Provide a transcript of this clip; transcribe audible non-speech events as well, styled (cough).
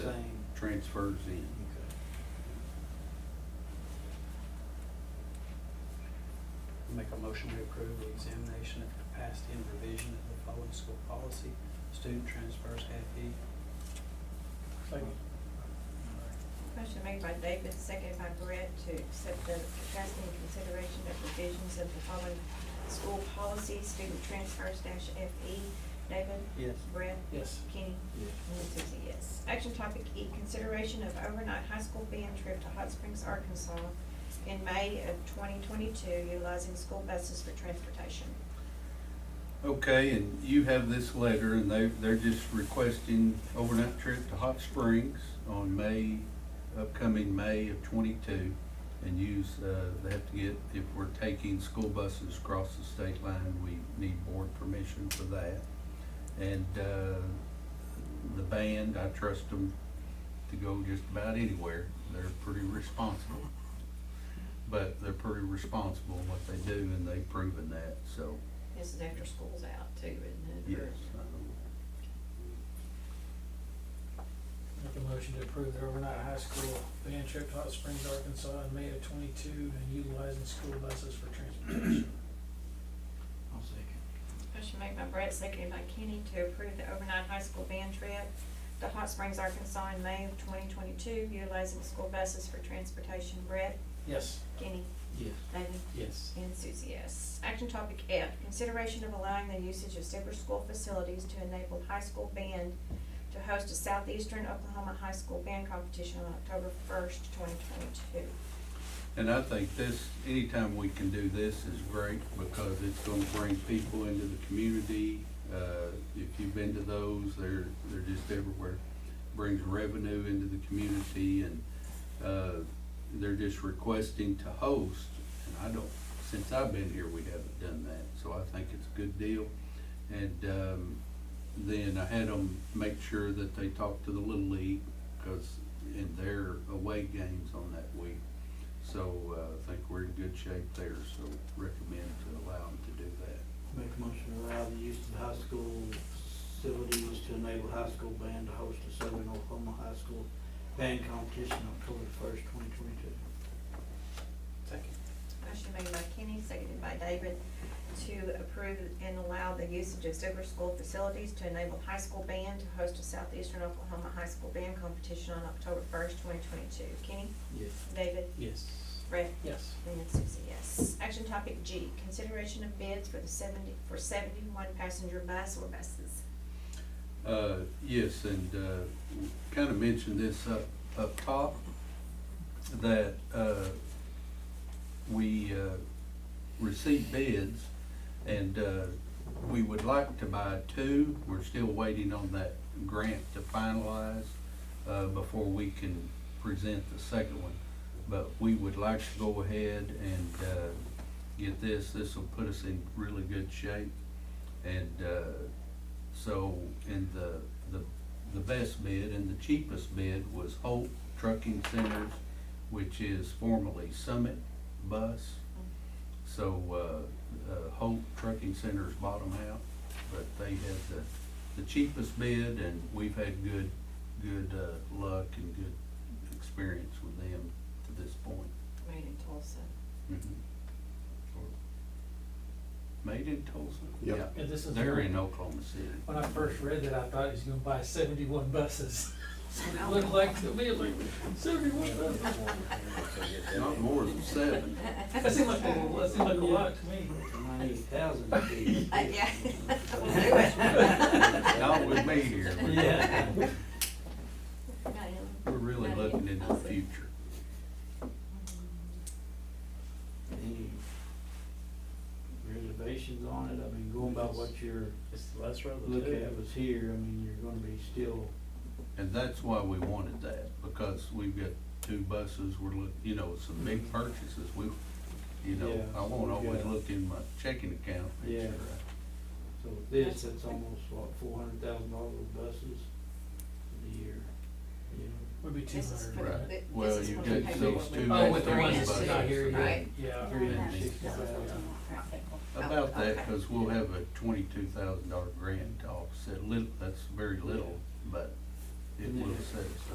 transfers in. Make a motion to approve the examination of capacity and revision of the following school policy, student transfers half E. Motion made by David, seconded by Brett to accept the capacity and consideration of provisions of the following school policy, student transfers dash FE. David? Yes. Brett? Yes. Kenny? And Susie, yes. Action topic E, consideration of overnight high school band trip to Hot Springs, Arkansas in May of twenty twenty-two, utilizing school buses for transportation. Okay, and you have this letter, and they, they're just requesting overnight trip to Hot Springs on May, upcoming May of twenty-two. And use, uh, they have to get, if we're taking school buses across the state line, we need board permission for that. And, uh, the band, I trust them to go just about anywhere. They're pretty responsible. But they're pretty responsible in what they do, and they've proven that, so. This is after school's out too, isn't Yes. it? Or- Make a motion to approve the overnight high school band trip to Hot Springs, Arkansas in May of twenty-two and utilizing school buses for transportation. I'll second. Motion made by Brett, seconded by Kenny to approve the overnight high school band trip to Hot Springs, Arkansas in May of twenty twenty-two, utilizing school buses for transportation. Brett, Yes. Kenny, Yes. David, Yes. and Susie, yes. Action topic F, consideration of allowing the usage of separate school facilities to enable high school band to host a Southeastern Oklahoma High School Band Competition on October first, twenty twenty-two. And I think this, anytime we can do this is great because it's gonna bring people into the community. Uh, if you've been to those, they're, they're just everywhere. Brings revenue into the community and, uh, they're just requesting to host. And I don't, since I've been here, we haven't done that, so I think it's a good deal. And, um, then I had them make sure that they talked to the Little League, cause in their away games on that week, so uh, I think we're in good shape there, so recommend to allow them to do that. Make a motion to allow the use of high school facilities to enable high school band to host a Southern Oklahoma High School Band Competition October first, twenty twenty-two. Second. Motion made by Kenny, seconded by David, to approve and allow the usage of Silver School facilities to enable high school band to host a Southeastern Oklahoma High School Band Competition on October first, twenty twenty-two. Kenny? Yes. David? Yes. Brett? Yes. And Susie, yes. Action topic G, consideration of bids for the seventy, for seventy-one passenger bus or buses. Uh, Yes, and kind of mentioned this up, up top, that uh, we uh, received bids and uh, we would like to buy two. We're still waiting on that grant to finalize uh, before we can present the second one. But we would like to go ahead and uh, get this. This will put us in really good shape. And uh, so, and the, the, the best bid and the cheapest bid was Holt Trucking Centers, which is formerly Summit Bus. So, uh, uh, Holt Trucking Centers bottom out, but they had the, the cheapest bid and we've had good, good, uh, luck and good experience with them to this point. Made in (laughs) Tulsa. Mhm. Made in Tulsa? Yep. Yeah. And this is. They're in Oklahoma City. When I first read that, I thought he was gonna buy seventy-one buses. (laughs) It looked like, to me, it looked seventy-one buses. Not more than seven. That seemed like, a- that seemed like a lot to me. Ninety thousand would be. Uh, yeah. (laughs) We'll do (laughs) it. Not with me here. but Yeah. We're really looking into the future. Any reservations on it? I mean, going by what your It's the last row of the look two. at was here, I mean, you're gonna be still, And that's why we wanted that, because we've got two buses, we're look, you know, some big purchases, we, you know, Yeah. I won't always look in my checking account. make Yeah. sure so with this, that's almost what, four hundred thousand dollars of buses a year, you know? Would be two This is I- for hundred. But Right, this well, is you what we got paid those for. two Oh, with the Mexican ones that's not here buses. yet. Right. Oh, Yeah. About that, Okay. because we'll have a twenty-two thousand dollar grant to offset, little, that's very little, but it will set us